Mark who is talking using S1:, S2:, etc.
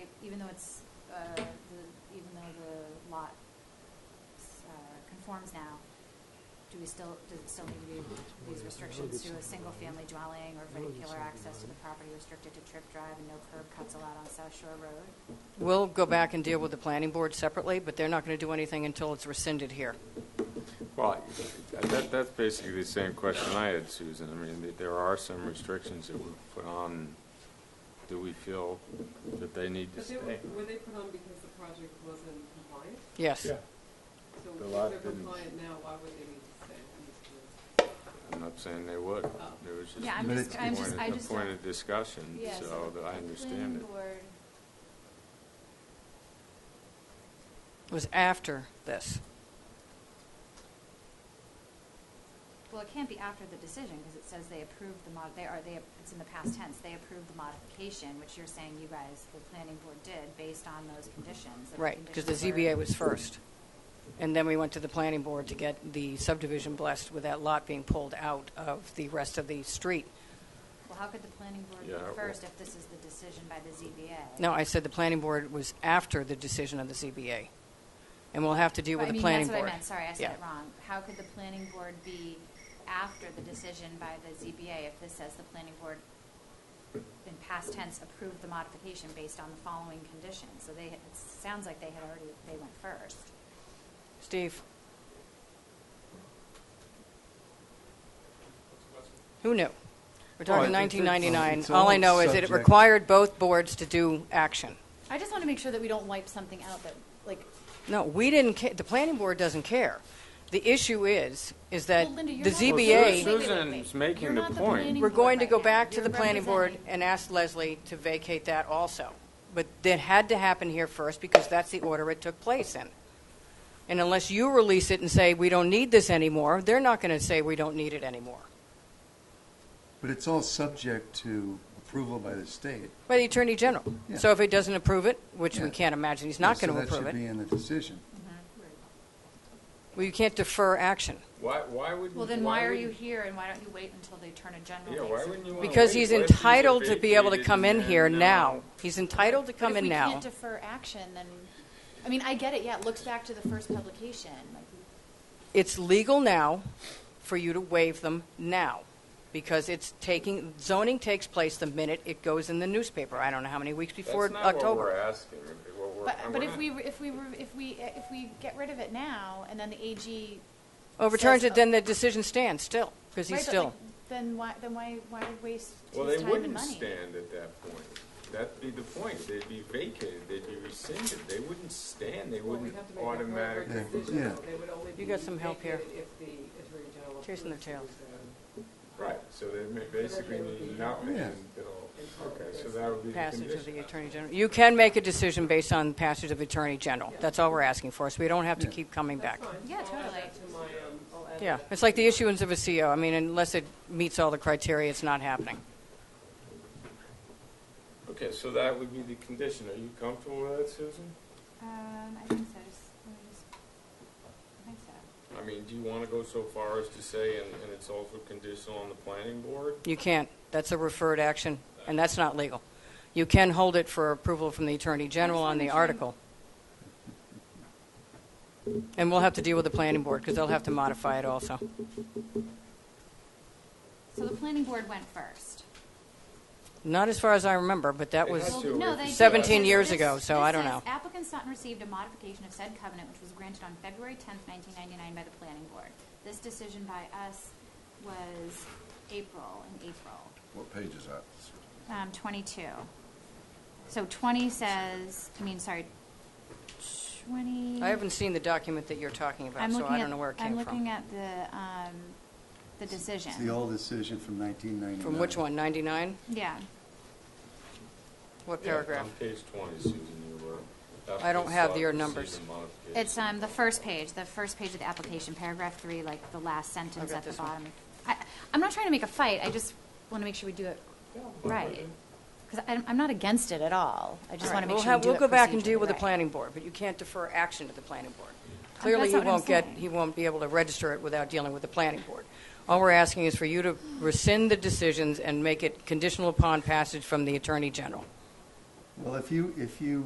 S1: though it's, uh, the, even though the lot, uh, conforms now, do we still, does it still need to be these restrictions to a single-family dwelling or vehicular access to the property restricted to trip drive and no curb cuts allowed on South Shore Road?
S2: We'll go back and deal with the planning board separately, but they're not going to do anything until it's rescinded here.
S3: Well, that, that's basically the same question I had, Susan. I mean, th- there are some restrictions that were put on. Do we feel that they need to
S4: But they
S3: stay?
S4: were, were they put on because the project wasn't compliant?
S2: Yes.
S4: So
S3: The
S4: if
S3: lot
S4: they're
S3: didn't-
S4: compliant now, why would they need to stay? in this group?
S3: I'm not saying they would. There was just
S1: Yeah,
S3: a
S1: I'm just, I'm just, I
S3: point,
S1: just.
S3: a point of discussion,
S1: Yeah,
S3: so that I understand it.
S2: It was after this.
S1: Well, it can't be after the decision, because it says they approved the mod, they are, they, it's in the past tense, they approved the modification, which you're saying you guys, the planning board did, based on those conditions. that the
S2: Right, because the
S1: conditions were-
S2: ZBA was first. And then we went to the planning board to get the subdivision blessed with that lot being pulled out of the rest of the street.
S1: Well, how could the planning board
S3: Yeah,
S1: be
S3: well-
S1: first if this is the decision by the ZBA?
S2: No, I said the planning board was after the decision of the ZBA. And we'll have to deal
S1: But
S2: with
S1: I
S2: the
S1: mean,
S2: planning
S1: That's
S2: board.
S1: what I meant, sorry, I
S2: Yeah.
S1: said it wrong. How could the planning board be after the decision by the ZBA if this says the planning board in past tense approved the modification based on the following conditions? So they, it sounds like they had already, they went first.
S2: Steve? Who knew? We're
S3: Well, I
S2: talking
S3: think it's-
S2: 1999.
S5: Oh, it's
S2: All I
S5: all
S2: know is that it
S5: subject.
S2: required both boards to do action.
S1: I just want to make sure that we don't wipe something out that, like,
S2: No, we didn't, ca- the planning board doesn't care. The issue is, is that
S1: Well, Linda, you're
S2: the
S1: not-
S2: ZBA...
S1: Wait, wait, wait,
S3: Susan's
S1: wait.
S3: making
S1: You're
S3: the
S1: not
S3: point.
S1: planning
S2: We're
S1: board
S2: going to
S1: right
S2: go
S1: now.
S2: back to the
S1: You're
S2: planning board
S1: representing-
S2: and ask Leslie to vacate that also. But that had to happen here first because that's the order it took place in. And unless you release it and say, we don't need this anymore, they're not going to say, we don't need it anymore.
S5: But it's all subject to approval by the state.
S2: By the Attorney General.
S5: Yeah.
S2: So if he doesn't approve it, which we
S5: Yeah.
S2: can't imagine, he's not
S5: So
S2: going to approve
S5: That should be
S2: it.
S5: in the decision.
S2: Well, you can't defer action.
S3: Why, why would?
S1: Well, then why are you here and why don't you wait until the attorney general?
S3: Yeah,
S1: makes
S3: why
S1: it?
S3: wouldn't you wanna
S2: Because
S3: wait?
S2: he's
S3: What if these are
S2: entitled to be able to
S3: vacated
S2: come in
S3: and
S2: here now.
S3: now-
S2: He's entitled to come in
S6: But if we
S2: now.
S6: can't defer action, then, I mean, I get it, yeah, it looks back to the first publication, like,
S2: it's legal now for you to waive them now because it's taking zoning takes place the minute it goes in the newspaper. I don't know how many weeks before
S3: That's not what we're
S2: October.
S3: asking. What we're-
S6: but,
S3: we're
S6: but if
S3: not-
S6: we, if we, were- if we, if we get rid of it now, and then the AG.
S2: Overturns
S6: says-
S2: it, then the decision stands still because
S6: Right,
S2: he's
S6: but,
S2: still.
S6: like, Then why, then why, why waste his
S3: Well,
S6: time
S3: they
S6: and money?
S3: wouldn't stand at that point. That'd be the point. They'd be vacated, they'd be rescinded. They wouldn't stand, they
S4: Well, we
S3: wouldn't
S4: have to make a
S3: automatic.
S4: proper decision,
S5: Yeah.
S4: though. They would only
S2: You got
S4: be
S2: some help here.
S4: vacated If the Attorney General.
S2: Chasing their
S4: approves
S2: tails.
S4: these,
S3: Right, so they may basically need nothing
S5: Yeah.
S3: until, okay, so that would be the
S2: Passage of
S3: condition.
S2: the Attorney General. You can make a decision based on passage of Attorney General. That's all we're asking for, so we don't have to
S5: Yeah.
S2: keep coming
S4: uh,
S2: back.
S4: That's fine.
S1: Yeah,
S4: I'll add
S1: totally.
S4: that to my, um, I'll add
S2: Yeah,
S4: that.
S2: it's like the issuance of a CO. I mean, unless it meets all the criteria, it's not happening.
S3: Okay, so that would be the condition. Are you comfortable with that, Susan?
S1: Um, I think so, just, let me just- I think so.
S3: I mean, do you want to go so far as to say, and, and it's also conditional on the planning board?
S2: You can't. That's a referred action, and that's not legal. You can hold it for approval from the Attorney General on the article. And we'll have to deal with the planning board, because they'll have to modify it also.
S1: So the planning board went first.
S2: Not as far as I remember, but that
S3: It
S2: was,
S3: has
S1: Well,
S3: to-
S1: no, they did,
S2: 17
S1: because
S2: years
S1: this-
S2: ago, so
S1: this
S2: I don't
S1: says,
S2: know.
S1: Applicant Sutton received a modification of said covenant, which was granted on February 10th, 1999 by the planning board. This decision by us was April, in April,
S7: What page is that?
S1: um, 22. So 20 says, I mean, sorry, 20.
S2: I haven't seen the document that you're talking about,
S1: I'm
S2: so
S1: looking
S2: I don't
S1: at-
S2: know where it
S1: I'm
S2: came
S1: looking
S2: from.
S1: at the, um, the decision.
S5: It's the old decision from 1999.
S2: From which one, 99?
S1: Yeah.
S2: What
S3: Yeah,
S2: paragraph?
S3: On page 20, Susan, you were.
S2: I don't
S3: applicant
S2: have
S3: sought
S2: your
S3: to see
S2: numbers.
S3: the modification.
S1: It's um, the first page, the first page of the application, paragraph three, like the last sentence
S2: Okay,
S1: at the
S2: this one.
S1: bottom. I, I'm not trying to make a fight, I just want to make sure we do it right. Because I'm, I'm not against it at all, I just want
S2: All right,
S1: to make
S2: we'll
S1: sure we
S2: have-
S1: do it
S2: We'll go back and deal
S1: procedurally
S2: with the
S1: right.
S2: planning board, but you can't defer action to the planning board.
S1: that's
S2: Clearly, he
S1: not what I'm
S2: won't get,
S1: saying.
S2: he won't be able to register it without dealing with the planning board. All we're asking is for you to rescind the decisions and make it conditional upon passage from the Attorney General.
S5: Well, if you, if you